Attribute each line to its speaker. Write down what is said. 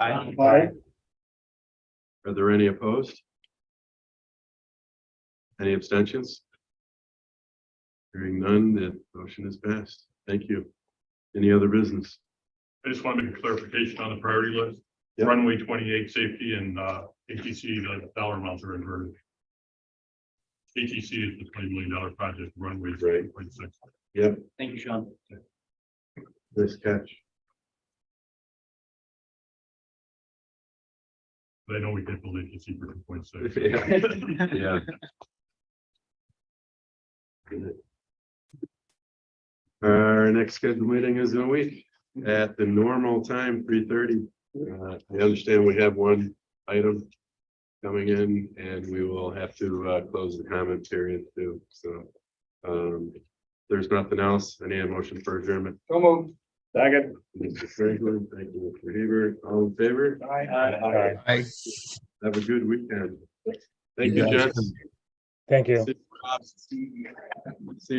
Speaker 1: Aye.
Speaker 2: Are there any opposed? Any abstentions? Hearing none, the motion is passed. Thank you. Any other business?
Speaker 3: I just want to make a clarification on the priority list.
Speaker 2: Yep.
Speaker 3: Runway twenty-eight safety and uh, ATC, the dollar amounts are inverted. ATC is the twenty million dollar project runway. is
Speaker 2: Right.
Speaker 3: 1.6.
Speaker 1: Thank you, Sean.
Speaker 2: Nice catch.
Speaker 3: But I know we did build ATC for two point six.
Speaker 2: Yeah. Yeah. Our next scheduled meeting is in a week at the normal time, three thirty. Uh, I understand we have one item coming in and we will have to, uh, close the comment period too, so. Um, there's nothing else. I need a motion for adjournment.
Speaker 4: So moved. Second.
Speaker 2: Mr. Franklin, thank you, Mr. Hebert. all in favor?
Speaker 4: Aye.
Speaker 2: Have a good weekend. Thank you, Jess.
Speaker 5: Thank you.
Speaker 2: See you.